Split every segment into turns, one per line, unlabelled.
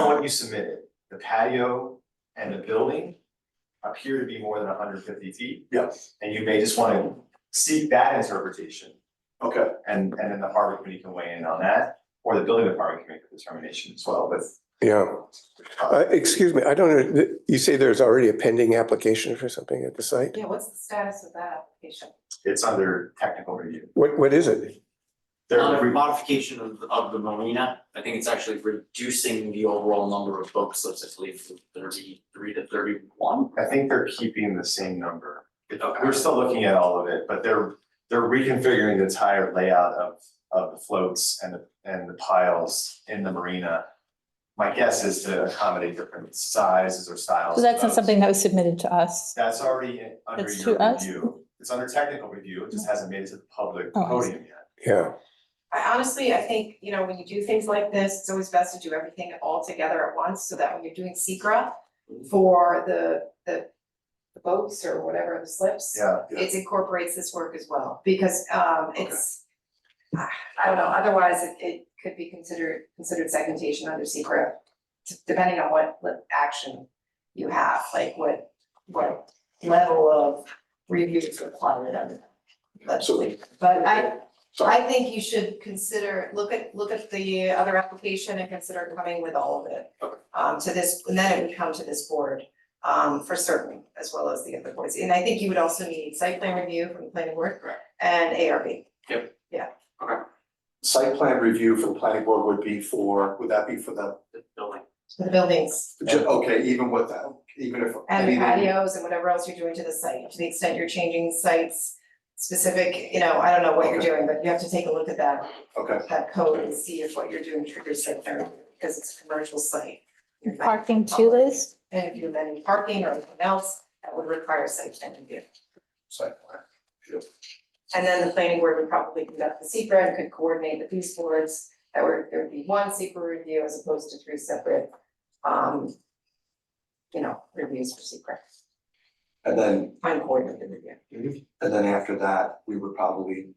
what you submitted, the patio and the building appear to be more than hundred fifty feet,
Yes,
and you may just wanna seek that interpretation.
okay,
And and then the harbor committee can weigh in on that, or the building department can make a determination as well, but.
Yeah, uh, excuse me, I don't know, you say there's already a pending application for something at the site?
Yeah, what's the status of that application?
It's under technical review.
What, what is it?
They're
Uh,
re-
modification of, of the marina, I think it's actually reducing the overall number of boat slips, I believe, from thirty-three to thirty-one.
I think they're keeping the same number.
Okay.
We're still looking at all of it, but they're, they're reconfiguring the entire layout of, of the floats and the, and the piles in the marina. My guess is to accommodate different sizes or styles.
So that's
of
not
boats.
something that was submitted to us.
That's already in- under
That's
your
to us?
review. It's under technical review. It just hasn't made it to the public
Oh, I see.
podium yet.
Yeah,
I honestly, I think, you know, when you do things like this, it's always best to do everything all together at once, so that when you're doing secra for the, the the boats or whatever, the slips.
Yeah.
It incorporates this work as well, because um it's, I I don't know, otherwise it it could be considered, considered segmentation under secret. Depending on what li- action you have, like what, what level of review is required under. But
Absolutely.
but I,
sorry,
I think you should consider, look at, look at the other application and consider coming with all of it. Um, to this, and then it would come to this board, um, for certain, as well as the other boards, and I think you would also need site plan review from the planning board.
Correct.
And ARB,
site plan review for the planning board would be for, would that be for the,
The building.
the buildings,
ju- okay, even with that, even if.
and the
anything-
patios and whatever else you're doing to the site, to the extent you're changing sites. Specific, you know, I don't know what you're doing, but you have to take a look at that,
Okay,
that code and see if what you're doing triggers site plan, review, because it's a commercial site. You're not-
Parking to Liz?
And if you have any parking or anything else, that would require site plan review.
site plan.
And then the planning board would probably conduct the secret and could coordinate the piece boards. That would, there would be one secret review as opposed to three separate, um, you know, reviews for secret,
And then,
fine coordinated review.
and then after that, we would probably,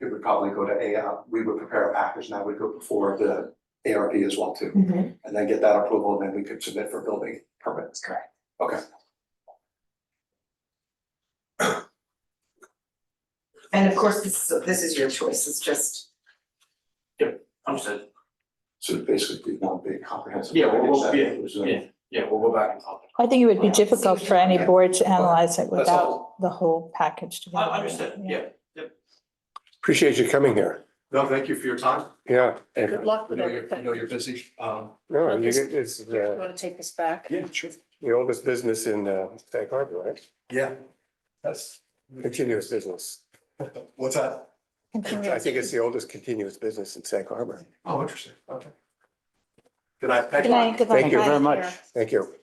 it would probably go to AR, we would prepare a package and that would go before the ARB as well
Hmm.
too. And then get that approval and then we could submit for building
That's
permits.
correct.
Okay.
And of course, this, is- this is your choice, it's just,
Understood,
So basically, we want big comprehensive.
Yeah, well,
package
well,
that
yeah,
was, uh,
yeah, yeah, we'll go back and talk.
I think it would be
Yeah.
difficult for any board to analyze it
That's
without the whole package
Uh,
together.
Understood, yeah.
appreciate you coming here,
No, thank you for your time.
yeah.
Good luck
I
with
know you're, I
everything.
know you're busy, um.
No, you get, it's
Do you
the,
want to take us back?
Yeah, sure.
the oldest business in, uh, Sag Harbor, right?
Yeah. That's,
Continuous business.
what's that?
I think it's the oldest continuous business in Sag Harbor.
Oh, interesting, okay. Good night, thank
Good
you.
night, good luck.
Thank you very
Bye.
much. Thank you.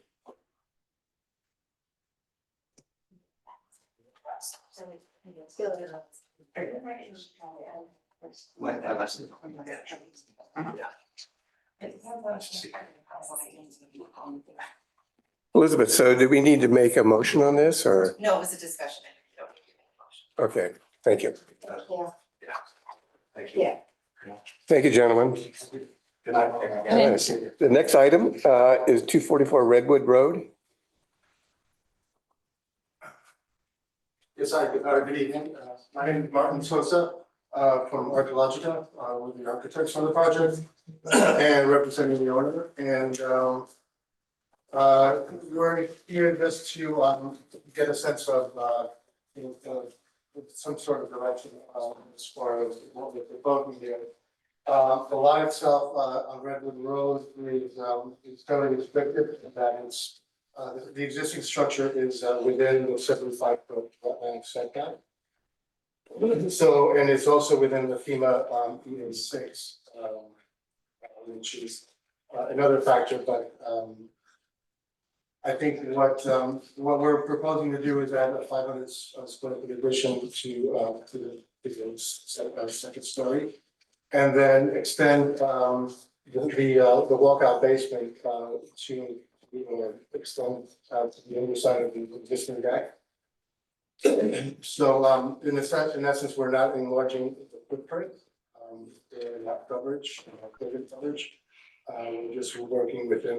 Might have us-
Elizabeth, so do we need to make a motion on this or,
no, it was a discussion. I don't need to make a motion.
okay, thank you.
Thank you.
Yeah.
Thank you, gentlemen.
Good night.
Good night.
The next item uh, is 244 Redwood Road.
Yes, hi, good uh, good evening. Uh, My name is Martin Sosa uh, from Archaeologica, uh, with the architects on the project and representing the owner. And um, uh, we're here just to um, get a sense of uh, you know, uh, with some sort of direction um, as far as what we're proposing here. Uh, The lot itself uh, on Redwood Road is um, is fairly restricted in that it's uh, the- the existing structure is uh, within the seventy-five foot wetland setback. So, and it's also within the FEMA um EA six, um, uh, which is uh, another factor, but um. I think what um, what we're proposing to do is add a five hundred uh, square foot addition to uh, to the, to the se- uh, second story. And then extend um, the, the uh, the walkout basement uh, to we will extend out uh, to the other side of the existing deck. So um in essence, in essence, we're not enlarging the footprint, um, the lot coverage, uh, building coverage. Uh, we're just working within